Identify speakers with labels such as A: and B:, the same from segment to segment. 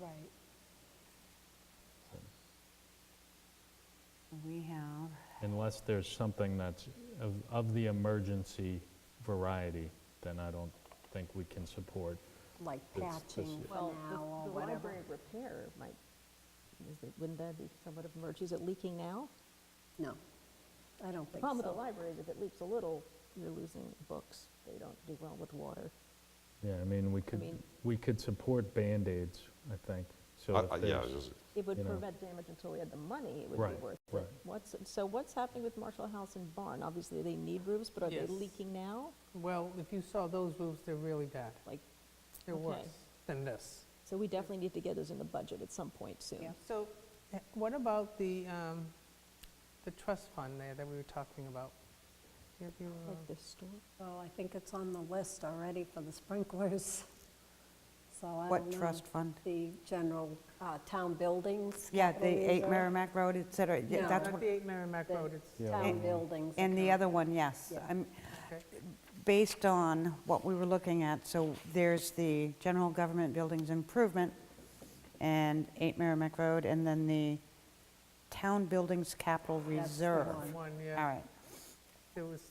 A: Right. We have,
B: Unless there's something that's of, of the emergency variety, then I don't think we can support.
A: like
B: It's- this
A: patching
B: is-
A: for
C: Well, the-
A: now or
C: the
A: whatever.
C: library repair might, is it- wouldn't that be somewhat of emergency? Is it leaking now?
A: No, I don't
C: The
A: think
C: problem with the
A: so.
C: library is if it leaks a little, you're losing books. They don't do well with water.
B: Yeah, I mean, we could,
C: mean-
B: we could support Band-Aids, I think, so
D: I-
B: if
D: I- Uh, Yeah,
B: there's-
D: just-
C: It would
B: You know.
C: prevent damage until we had the money, it would be
B: Right,
C: worth it.
B: right.
C: What's, so what's happening with Marshall House and Barn? Obviously, they need roofs, but are they
E: Yes.
C: leaking now?
E: Well, if you saw those roofs, they're really bad.
C: Like,
E: They're
C: Okay.
E: worse than this.
C: so we definitely need to get those in the budget at some point soon.
E: So eh, what about the, um, the trust fund there that we were talking about? Do you have your, uh,
C: Like the store?
A: Well, I think it's on the list already for the sprinklers, so I
F: What
A: don't know.
F: trust fund?
A: The general uh, town buildings.
F: Yeah,
A: capital
F: the 8
A: reserve,
F: Merrimack Road, et cetera. Yeah,
A: No.
F: that's
E: Not
F: what-
E: the 8 Merrimack
A: the
E: Road, it's,
A: Town buildings.
F: And the
A: account.
F: other one, yes.
A: Yeah.
F: I'm-
E: okay.
F: Based on what we were looking at, so there's the General Government Buildings Improvement and 8 Merrimack Road, and then the Town Buildings Capital
A: the
F: Reserve.
A: one.
F: All
E: one, yeah,
F: right.
E: it was,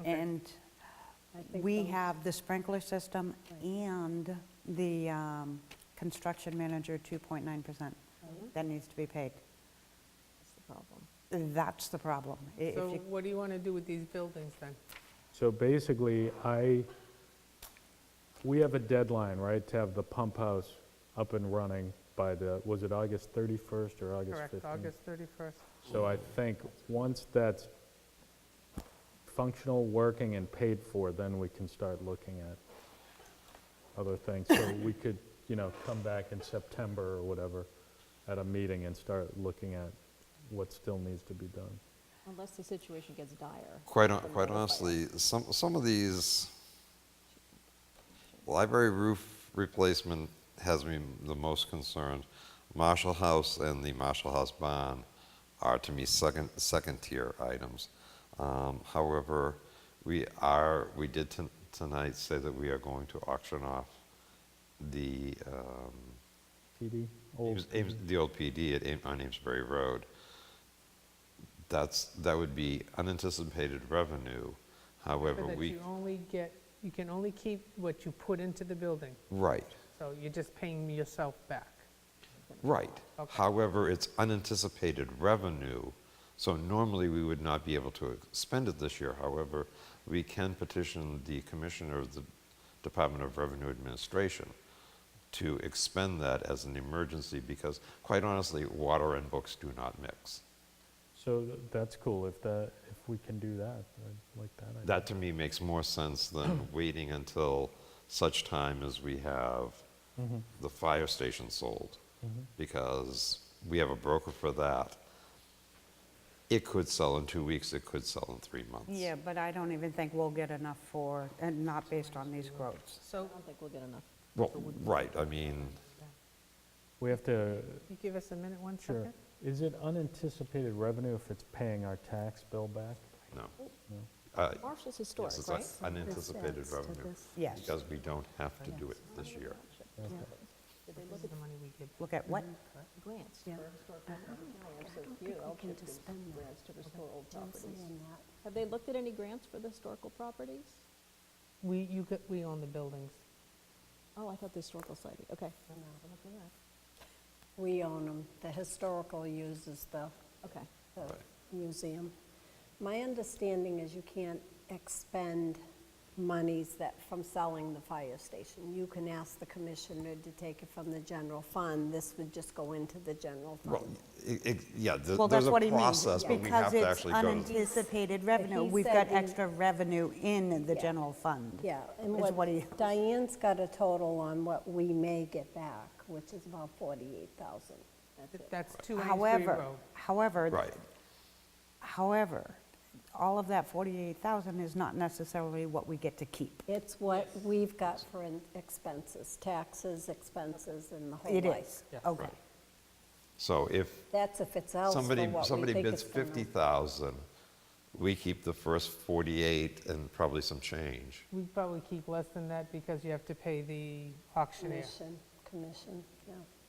E: okay.
F: And
A: I think
F: we
A: the-
F: have the sprinkler system
A: Right.
F: and the um, construction manager 2.9%. That needs to be paid.
C: That's the problem.
F: That's the problem. I- if
E: So
F: you-
E: what do you want to do with these buildings then?
B: So basically, I, we have a deadline, right, to have the pump house up and running by the, was it August 31st or August 15th?
E: Correct, August 31st.
B: So I think once that's functional, working, and paid for, then we can start looking at other things. So we could, you know, come back in September or whatever at a meeting and start looking at what still needs to be done.
C: Unless the situation gets dire.
D: quite, hon- quite honestly, some, some of these, library roof replacement has me the most concerned. Marshall House and the Marshall House bond are to me second, second tier items. Um, however, we are, we did ton- tonight say that we are going to auction off the, um,
B: PD?
D: Ames- Ames- The old PD at, Am- on Amesbury Road. That's, that would be unanticipated revenue, however,
E: That
D: we,
E: you only get, you can only keep what you put into the building,
D: right,
E: so you're just paying yourself back.
D: right.
E: Okay.
D: However, it's unanticipated revenue, so normally we would not be able to spend it this year. However, we can petition the Commissioner of the Department of Revenue Administration to expend that as an emergency, because quite honestly, water and books do not mix.
B: So th- that's cool, if that, if we can do that, I'd like that. idea.
D: That to me makes more sense than waiting until such time as we have the fire station sold. Because we have a broker for that. It could sell in two weeks, it could sell in three months.
F: Yeah, but I don't even think we'll get enough for, and not based on these quotes.
E: So
C: I don't think we'll get enough.
D: Well, right, I mean,
B: We have to,
E: you give us a minute, one
B: sure,
E: second?
B: is it unanticipated revenue if it's paying our tax bill back?
D: no. Uh,
C: Marshall's historic,
D: Yes, it's
C: right?
D: un- unanticipated
A: This adds to
D: revenue.
A: this.
F: Yes.
D: Because we don't have to do it this year.
C: Did they
E: This
C: look
E: is
C: at
E: the money we give.
F: Look at what?
C: grants for
A: Yeah.
C: historic property? No, they're so
A: don't
C: few.
A: think we
C: I'll
A: can
C: check the
A: just spend that.
C: grants to restore old
A: Don't say
C: properties.
A: in that.
C: Have they looked at any grants for the historical properties?
E: We, you, get- we own the buildings.
C: Oh, I thought the historical society, okay.
A: We own them. The historical uses the
C: Okay,
A: the
D: Right.
A: museum. My understanding is you can't expend monies that, from selling the fire station. You can ask the commissioner to take it from the general fund. This would just go into the general
D: Well,
A: fund.
D: it- it- yeah, th-
F: Well,
D: there's
F: that's
D: a
F: what he means.
D: process, but we have to actually go
F: Because
D: to.
F: it's unanticipated revenue.
A: he
F: We've
A: said
F: got
A: in-
F: extra revenue in the
A: Yeah.
F: general fund.
A: Yeah, and
F: Is what he-
A: what, Diane's got a total on what we may get back, which is about 48,000. That's
E: Th-
A: it.
E: That's two Amesbury
F: However,
E: Road.
F: however.
D: Right,
F: However, all of that 48,000 is not necessarily what we get to keep.
A: It's what we've got for in- expenses, taxes, expenses, and the whole
F: It
A: like.
F: is, okay.
D: so if,
A: That's if it's else for what we
D: Somebody,
A: think it's
D: somebody bids
A: gonna-
D: 50,000, we keep the first 48 and probably some change.
E: We probably keep less than that because you have to pay the auctioneer.
A: Commission, commission, yeah.